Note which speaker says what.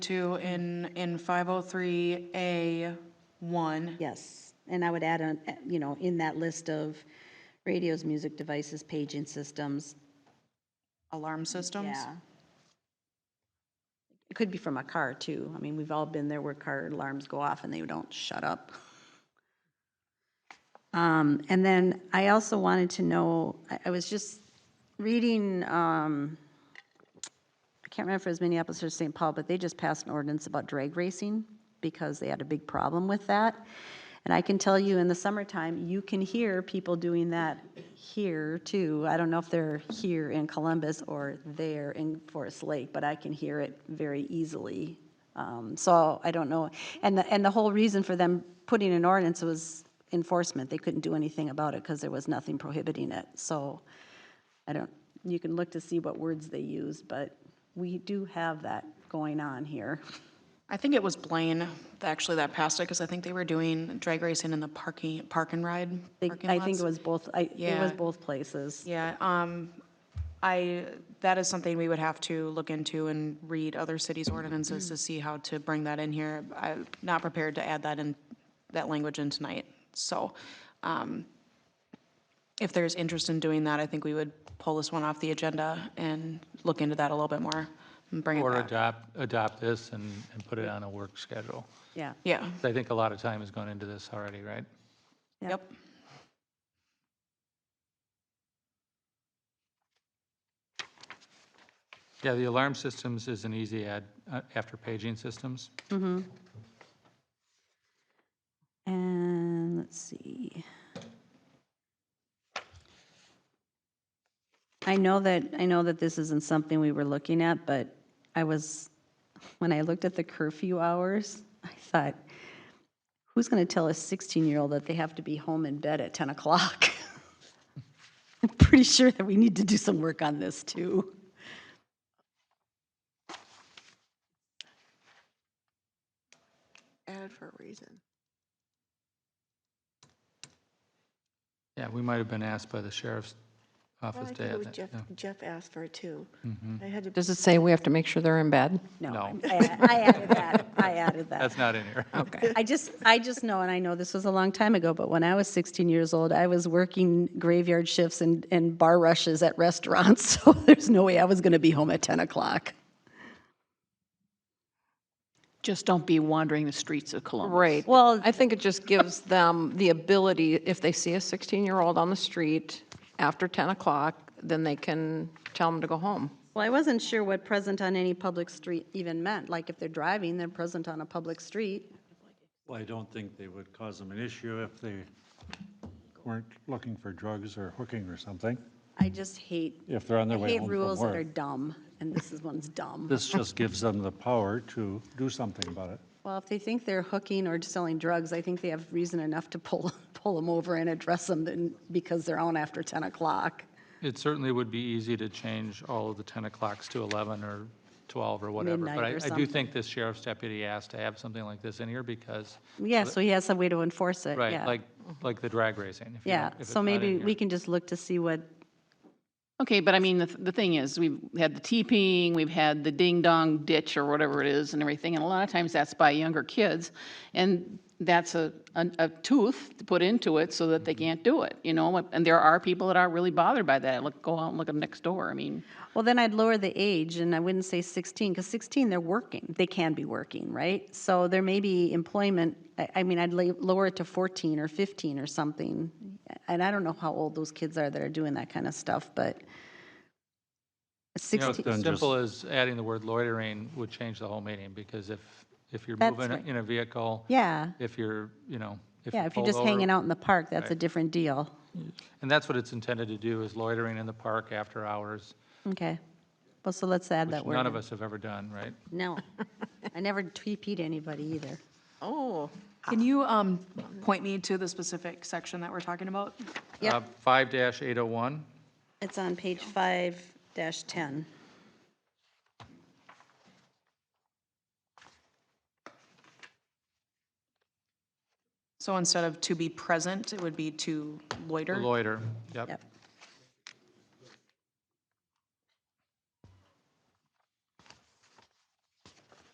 Speaker 1: to in, in 503A1.
Speaker 2: Yes, and I would add, on, eh, you know, in that list of radios, music devices, paging systems,
Speaker 1: alarm systems.
Speaker 2: yeah. It could be from a car, too. I mean, we've all been there where car alarms go off and they don't shut up. Um, And then I also wanted to know, I- I was just reading, um, I can't remember if it was Minneapolis or St. Paul, but they just passed an ordinance about drag racing because they had a big problem with that. And I can tell you, in the summertime, you can hear people doing that here too. I don't know if they're here in Columbus or there in Forest Lake, but I can hear it very easily. Um, So I don't know. And the, and the whole reason for them putting an ordinance was enforcement. They couldn't do anything about it because there was nothing prohibiting it. So I don't, you can look to see what words they use, but we do have that going on here.
Speaker 1: I think it was Blaine, actually, that passed it, because I think they were doing drag racing in the parking, park and ride.
Speaker 2: They-
Speaker 1: parking
Speaker 2: I think
Speaker 1: lots.
Speaker 2: it was both, I, it was
Speaker 1: Yeah.
Speaker 2: both places.
Speaker 1: Yeah, um, I, that is something we would have to look into and read other cities' ordinances to see how to bring that in here. I'm not prepared to add that in, that language in tonight, so, um, if there's interest in doing that, I think we would pull this one off the agenda and look into that a little bit more and bring it
Speaker 3: Or
Speaker 1: back.
Speaker 3: adopt, adopt this and, and put it on a work schedule.
Speaker 2: Yeah.
Speaker 1: Yeah,
Speaker 3: I think a lot of time has gone into this already, right?
Speaker 2: Yeah.
Speaker 1: yep.
Speaker 3: Yeah, the alarm systems is an easy add, uh, after paging systems.
Speaker 2: And let's see. I know that, I know that this isn't something we were looking at, but I was, when I looked at the curfew hours, I thought, who's going to tell a 16-year-old that they have to be home in bed at 10 o'clock? I'm pretty sure that we need to do some work on this, too.
Speaker 4: added for a reason.
Speaker 3: Yeah, we might have been asked by the sheriff's
Speaker 4: Well,
Speaker 3: office
Speaker 4: I
Speaker 3: to
Speaker 4: think it
Speaker 3: add
Speaker 4: was
Speaker 3: that.
Speaker 4: Jeff,
Speaker 3: yeah. Mm-hmm.
Speaker 4: Jeff asked for it too. I had to,
Speaker 5: Does it say we have to make sure they're in bed?
Speaker 3: No.
Speaker 2: I I added that, I added that.
Speaker 3: That's not in here.
Speaker 5: Okay.
Speaker 2: I just, I just know, and I know this was a long time ago, but when I was 16 years old, I was working graveyard shifts and, and bar rushes at restaurants, so there's no way I was going to be home at 10 o'clock.
Speaker 6: Just don't be wandering the streets of Columbus.
Speaker 5: Right.
Speaker 2: Well-
Speaker 5: I think it just gives them the ability, if they see a 16-year-old on the street after 10 o'clock, then they can tell them to go home.
Speaker 2: Well, I wasn't sure what present on any public street even meant, like if they're driving, they're present on a public street.
Speaker 7: Well, I don't think they would cause them an issue if they weren't looking for drugs or hooking or something,
Speaker 2: I just hate,
Speaker 7: if they're on
Speaker 2: I
Speaker 7: their way
Speaker 2: hate
Speaker 7: home from
Speaker 2: rules that are
Speaker 7: work.
Speaker 2: dumb, and this is one's dumb.
Speaker 7: This just gives them the power to do something about it.
Speaker 2: Well, if they think they're hooking or selling drugs, I think they have reason enough to pull, pull them over and address them than- because they're on after 10 o'clock.
Speaker 3: It certainly would be easy to change all of the 10 o'clocks to 11 or 12 or whatever.
Speaker 2: Midnight or
Speaker 3: But I- I do
Speaker 2: something.
Speaker 3: think this sheriff's deputy asked to have something like this in here because,
Speaker 2: Yeah, so he has some way to enforce it,
Speaker 3: right,
Speaker 2: yeah.
Speaker 3: like, like the drag racing. if you
Speaker 2: Yeah,
Speaker 3: don't- if it's
Speaker 2: so
Speaker 3: not in
Speaker 2: maybe
Speaker 3: here.
Speaker 2: we can just look to see what,
Speaker 6: Okay, but I mean, the, the thing is, we've had the teepeeing, we've had the ding-dong ditch or whatever it is and everything, and a lot of times that's by younger kids, and that's a, a a tooth to put into it so that they can't do it, you know? And there are people that are really bothered by that. Look, go out and look at them next door, I mean.
Speaker 2: well, then I'd lower the age, and I wouldn't say 16, because 16, they're working, they can be working, right? So there may be employment, I, I mean, I'd la- lower it to 14 or 15 or something. And I don't know how old those kids are that are doing that kind of stuff, but
Speaker 3: You know,
Speaker 2: 16,
Speaker 3: it's as
Speaker 7: Then just-
Speaker 3: simple as adding the word loitering would change the whole meeting, because if, if you're
Speaker 2: That's
Speaker 3: moving
Speaker 2: right.
Speaker 3: in a vehicle,
Speaker 2: yeah,
Speaker 3: if you're, you know, if
Speaker 2: yeah,
Speaker 3: you're
Speaker 2: if you're
Speaker 3: pulled
Speaker 2: just hanging
Speaker 3: over,
Speaker 2: out in the park, that's a different deal.
Speaker 3: and that's what it's intended to do, is loitering in the park after hours,
Speaker 2: Okay, well, so let's add
Speaker 3: which
Speaker 2: that word.
Speaker 3: none of
Speaker 2: in.
Speaker 3: us have ever done, right?
Speaker 2: No, I never TP'd anybody either.
Speaker 4: oh,
Speaker 1: Can you um, point me to the specific section that we're talking about?
Speaker 2: Yep.
Speaker 3: Uh, Five dash eight oh one,
Speaker 2: It's on page five dash ten.
Speaker 1: So instead of to be present, it would be to loiter?
Speaker 3: loiter, yep.
Speaker 2: Yep.